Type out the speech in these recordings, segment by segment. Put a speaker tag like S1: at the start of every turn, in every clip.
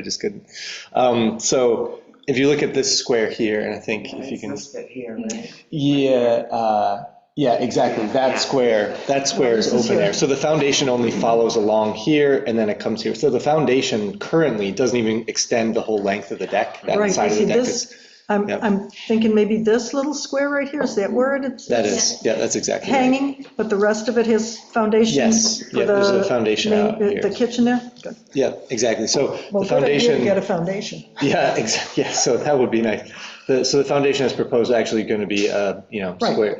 S1: I just couldn't. Um, So if you look at this square here, and I think if you can,
S2: It's listed here, right?
S1: yeah, uh, yeah, exactly, that square, that square is open air. So the foundation only follows along here, and then it comes here. So the foundation currently doesn't even extend the whole length of the deck, that
S3: Right, I
S1: side of
S3: see
S1: the deck.
S3: this,
S1: is-
S3: I'm,
S1: Yep.
S3: I'm thinking maybe this little square right here, is that where it's?
S1: That is, yeah, that's exactly right.
S3: Hanging, but the rest of it has foundation?
S1: Yes,
S3: for
S1: yeah, there's a
S3: the
S1: foundation
S3: main-
S1: out here.
S3: The kitchen there? Good.
S1: Yeah, exactly. So
S3: Well,
S1: the
S3: good idea
S1: foundation.
S3: to get a foundation.
S1: Yeah, exactly, yeah, so that would be nice. The- So the foundation is proposed actually going to be, uh, you know,
S3: Right.
S1: square,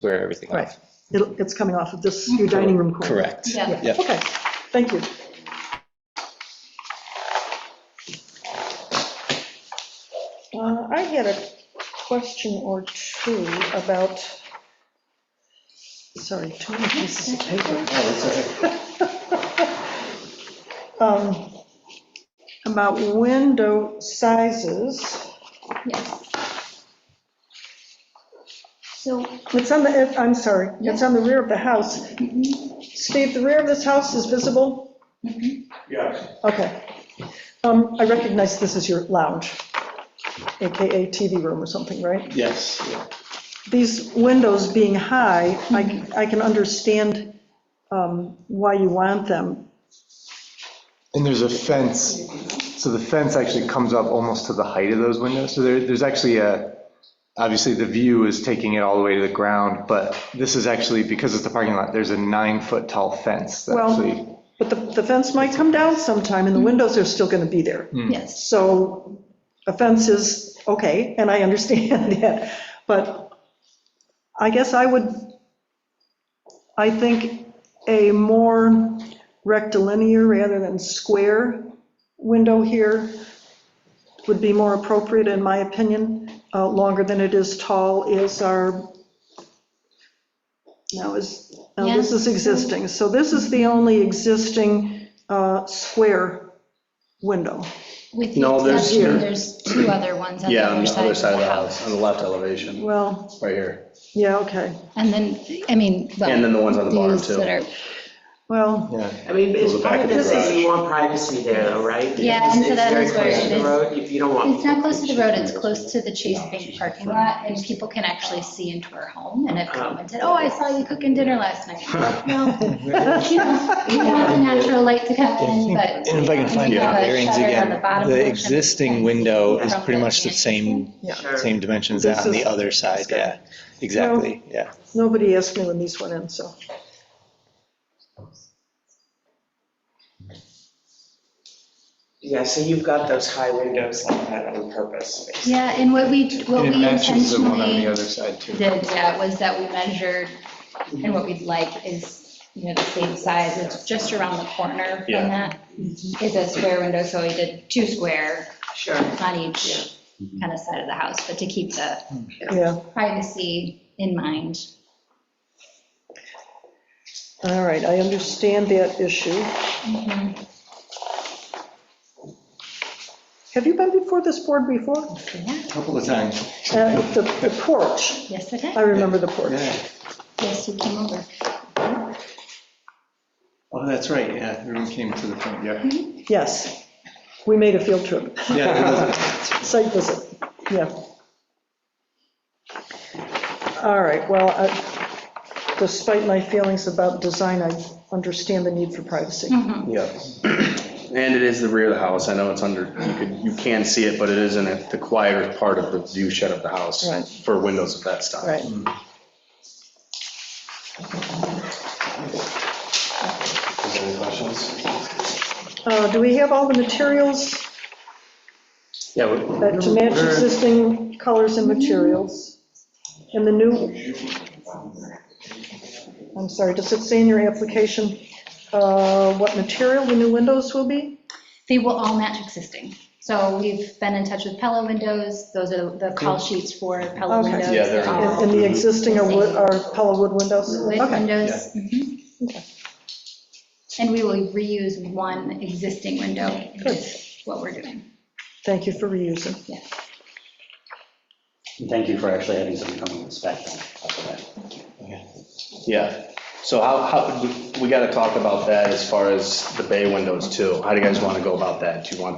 S1: square everything
S3: Right,
S1: off.
S3: It'll- it's coming off of this, your dining room corner.
S1: Correct.
S4: Yeah.
S3: Yeah,
S1: Yeah.
S3: okay, thank you.
S5: Uh, I had a question or two about,
S3: Sorry, two more pieces of paper.
S5: um, about window sizes.
S4: Yes. So,
S5: It's on the, I'm sorry, it's on the rear of the house. Steve, the rear of this house is visible?
S6: Yes,
S5: Okay. Um, I recognize this is your lounge, AKA TV room or something, right?
S6: yes. yeah.
S3: These windows being high, I, I can understand um, why you want them.
S1: And there's a fence, so the fence actually comes up almost to the height of those windows. So there, there's actually a, obviously the view is taking it all the way to the ground, but this is actually, because it's the parking lot, there's a nine-foot tall fence that
S3: Well-
S1: actually.
S3: But the, the fence might come down sometime, and the windows are still going to be there.
S6: Hmm.
S4: yes,
S3: So offenses, okay, and I understand that, but I guess I would, I think a more rectilinear rather than square window here would be more appropriate, in my opinion. Uh, Longer than it is tall is our, now is, now this is existing. So this is the only existing uh, square window.
S4: with the
S6: No, there's-
S4: exception, there's two other ones on the
S6: Yeah, on
S4: other
S6: the other
S4: side of the
S6: house, on
S4: house.
S6: the left elevation,
S3: Well,
S6: right here.
S3: yeah, okay.
S4: And then, I mean, well.
S6: And then the ones on the bottom,
S4: these
S6: too.
S4: that are-
S3: Well,
S2: I mean, it's
S6: Goes back
S2: part
S6: in
S2: of
S6: the
S2: this is
S6: garage.
S2: you want privacy there, though, right?
S4: Yeah,
S2: Because
S4: and so
S2: it's
S4: that
S2: very
S4: is where
S2: close
S4: it
S2: to the
S4: is.
S2: road, If you don't want.
S4: It's not close to the road, it's close to the Chase Bank parking lot, and people can actually see into our home and have commented, oh, I saw you cooking dinner last night. Well, No, you know, you want the natural light to come in, but.
S7: And if I can find
S4: you
S7: the
S4: have a
S7: bearings
S4: shutter on
S7: again,
S4: the bottom portion
S7: the
S4: that
S7: existing
S4: can
S7: window
S4: see
S7: is
S4: from
S7: pretty much the same,
S3: Yeah.
S2: Sure.
S7: same dimensions that on
S3: This
S7: the
S3: is-
S7: other side, yeah, exactly, yeah.
S3: nobody asked me when these went in, so.
S2: Yeah, so you've got those high windows like that on purpose, basically.
S4: Yeah, and what we, what
S7: And it
S4: we
S7: matches the one on the
S4: intentionally
S7: other side too.
S4: did, yeah, was that we measured, and what we'd like is, you know, the same size, it's just around the corner from
S6: Yeah.
S4: that. Is a square window, so we did two square
S2: Sure.
S4: on each
S6: Mm-hmm.
S4: kind of side of the house, but to keep the
S3: Yeah,
S4: privacy in mind.
S3: all right, I understand that issue. Have you been before this board before?
S4: Yeah,
S7: Couple of times.
S3: Uh, The the porch,
S4: yes, it
S3: I
S4: is.
S3: remember the porch.
S7: Yeah,
S4: Yes, you came over.
S7: oh, that's right, yeah, everyone came to the front, yeah.
S3: Yes, we made a field trip,
S7: Yeah, it was-
S3: site visit, yeah. All right, well, I- despite my feelings about design, I understand the need for privacy.
S6: Yep. And it is the rear of the house. I know it's under, you could, you can see it, but it is in the quieter part of the view shed of the house.
S3: Right.
S6: For windows of that style.
S3: Right.
S6: Any questions?
S3: Uh, Do we have all the materials
S6: Yeah. we-
S3: that to match
S6: Where-
S3: existing colors and materials? And the new, I'm sorry, does it say in your application uh, what material the new windows will be?
S4: They will all match existing. So we've been in touch with Pella windows, those are the call sheets for Pella
S3: Okay.
S4: windows.
S6: Yeah, they're
S4: They're
S6: in-
S3: And
S4: all
S3: and the existing are wood- are Pella wood windows?
S4: with
S3: Okay.
S4: windows. mhm. And we will reuse one existing window, is what we're doing.
S3: Thank you for reusing.
S8: Thank you for actually having someone come and inspect them.
S6: Yeah. So how, how, we- we gotta talk about that as far as the bay windows too. How do you guys wanna go about that? Do you want